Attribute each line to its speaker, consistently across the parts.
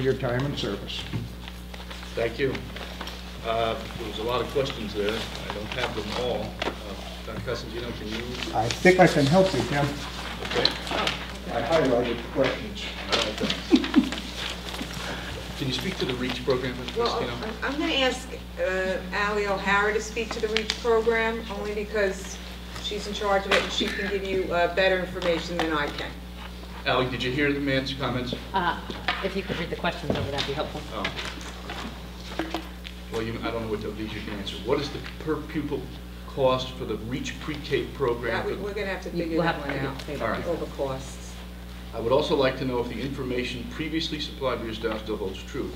Speaker 1: your time and service.
Speaker 2: Thank you. Uh, There was a lot of questions there. I don't have them all. Uh, Dr. Costantino, can you?
Speaker 1: I think I can help you, Tim.
Speaker 2: Okay.
Speaker 1: I highlighted the questions.
Speaker 2: All right, then. Can you speak to the REACH program, Mr.
Speaker 3: Well,
Speaker 2: Costantino?
Speaker 3: I'm- I'm going to ask uh, Ally O'Hara to speak to the REAP program, only because she's in charge of it, and she can give you uh, better information than I can.
Speaker 2: Ally, did you hear the man's comments?
Speaker 4: Uh, If you could read the questions over, that'd be helpful.
Speaker 2: Oh. Well, you, I don't know what of these you can answer. What is the per pupil cost for the REACH pre-K program?
Speaker 3: That we-
Speaker 2: for-
Speaker 3: We're going to have to
Speaker 4: You-
Speaker 3: figure
Speaker 4: we'll
Speaker 3: that
Speaker 4: have
Speaker 3: one
Speaker 4: to
Speaker 3: out,
Speaker 4: figure
Speaker 2: that out.
Speaker 3: over costs.
Speaker 2: I would also like to know if the information previously supplied by your staff still holds true.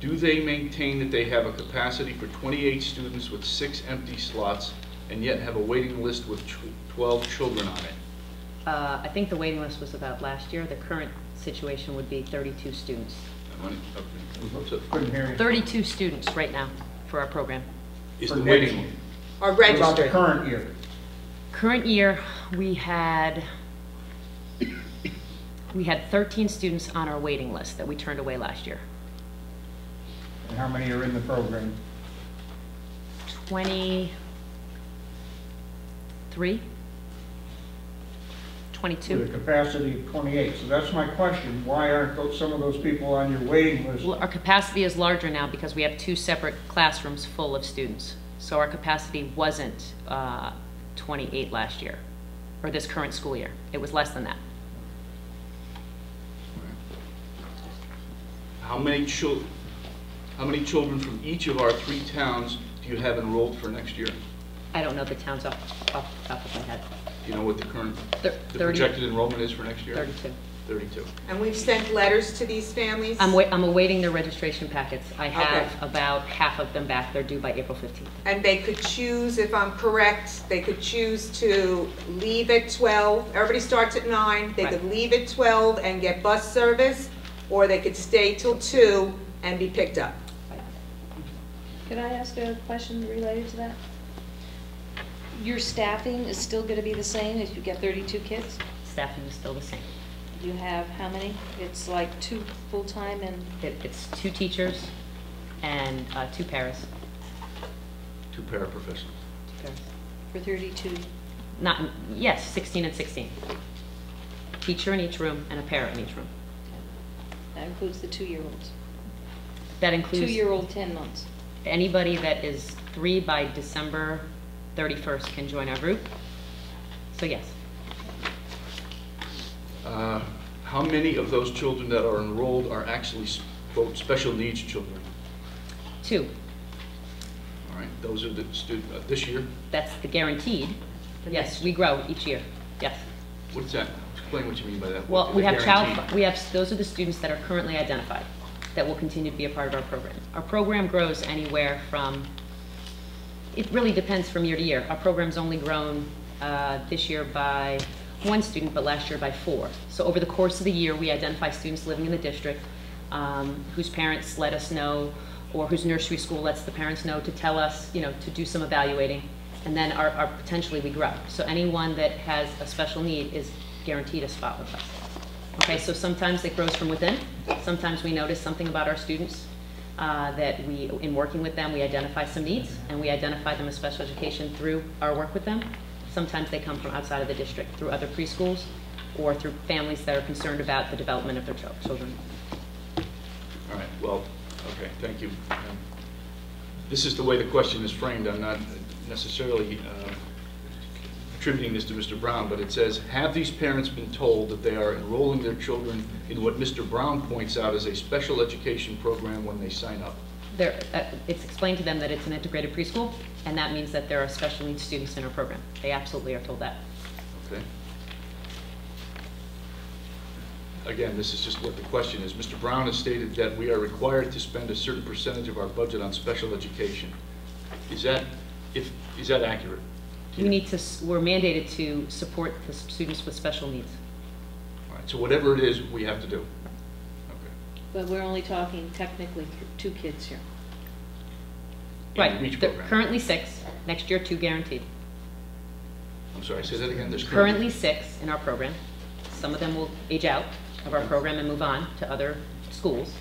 Speaker 2: Do they maintain that they have a capacity for 28 students with six empty slots and yet have a waiting list with tw- 12 children on it?
Speaker 4: Uh, I think the waiting list was about last year. The current situation would be 32 students.
Speaker 2: Am I- okay. So,
Speaker 1: Couldn't hear you.
Speaker 4: 32 students right now for our program.
Speaker 2: Is
Speaker 1: For
Speaker 2: the
Speaker 1: next
Speaker 2: waiting,
Speaker 1: year.
Speaker 3: Are
Speaker 1: What About the
Speaker 3: registered.
Speaker 1: current year.
Speaker 4: Current year, we had, we had 13 students on our waiting list that we turned away last year.
Speaker 1: And how many are in the program?
Speaker 4: 23?
Speaker 1: With a
Speaker 4: 22?
Speaker 1: capacity of 28. So that's my question. Why aren't those- some of those people on your waiting list?
Speaker 4: Well, Our capacity is larger now because we have two separate classrooms full of students. So our capacity wasn't uh, 28 last year, or this current school year. It was less than that.
Speaker 2: how many chil, how many children from each of our three towns do you have enrolled for next year? Do
Speaker 4: I don't know the towns off, off the top of my head.
Speaker 2: you know what the current,
Speaker 4: Thir-
Speaker 2: the
Speaker 4: 30.
Speaker 2: projected enrollment is for next year?
Speaker 4: 32.
Speaker 2: 32.
Speaker 3: And we've sent letters to these families?
Speaker 4: I'm wait, I'm awaiting their registration packets. I have
Speaker 3: Okay.
Speaker 4: about half of them back. They're due by April 15th.
Speaker 3: And they could choose, if I'm correct, they could choose to leave at 12, everybody starts at 9, they could
Speaker 4: Right.
Speaker 3: leave at 12 and get bus service, or they could stay till 2 and be picked up.
Speaker 5: Could I ask a question related to that? Your staffing is still going to be the same if you get 32 kids?
Speaker 4: Staffing is still the same.
Speaker 5: You have how many? It's like two full-time and,
Speaker 4: It, it's two teachers and uh, two paras.
Speaker 2: Two paraprofessionals.
Speaker 4: Two paras.
Speaker 5: for 32.
Speaker 4: Not, yes, 16 and 16. Teacher in each room and a para in each room.
Speaker 5: That includes the two-year-olds.
Speaker 4: That includes
Speaker 5: Two-year-old, 10 months.
Speaker 4: anybody that is three by December 31st can join our group. So yes,
Speaker 2: Uh, How many of those children that are enrolled are actually, quote, special needs children?
Speaker 4: two,
Speaker 2: All right, those are the students, this year,
Speaker 4: that's the guaranteed. Yes, we grow each year, yes.
Speaker 2: what's that? Explain what you mean by that.
Speaker 4: Well,
Speaker 2: What-
Speaker 4: we have child,
Speaker 2: guaranteed?
Speaker 4: we have, those are the students that are currently identified, that will continue to be a part of our program. Our program grows anywhere from, it really depends from year to year. Our program's only grown uh, this year by one student, but last year by four. So over the course of the year, we identify students living in the district um, whose parents let us know, or whose nursery school lets the parents know to tell us, you know, to do some evaluating, and then our, our, potentially we grow. So anyone that has a special need is guaranteed a spot with us. Okay, so sometimes it grows from within, sometimes we notice something about our students, uh, that we, in working with them, we identify some needs, and we identify them as special education through our work with them. Sometimes they come from outside of the district, through other preschools, or through families that are concerned about the development of their chil- children.
Speaker 2: All right, well, okay, thank you. Um, This is the way the question is framed, I'm not necessarily uh, attributing this to Mr. Brown, but it says, "Have these parents been told that they are enrolling their children in what Mr. Brown points out as a special education program when they sign up?"
Speaker 4: There, uh, it's explained to them that it's an integrated preschool, and that means that there are special needs students in our program. They absolutely are told that.
Speaker 2: Okay. Again, this is just what the question is. Mr. Brown has stated that we are required to spend a certain percentage of our budget on special education. Is that, if, is that accurate?
Speaker 4: We need to, s- we're mandated to support the s- students with special needs.
Speaker 2: All right, so whatever it is, we have to do. Okay.
Speaker 5: But we're only talking technically th- two kids here.
Speaker 2: In the
Speaker 4: Right,
Speaker 2: REACH
Speaker 4: they're
Speaker 2: program.
Speaker 4: currently six, next year two guaranteed.
Speaker 2: I'm sorry, say that again, there's
Speaker 4: Currently six in our program. Some of them will age out of our program and move on to other schools.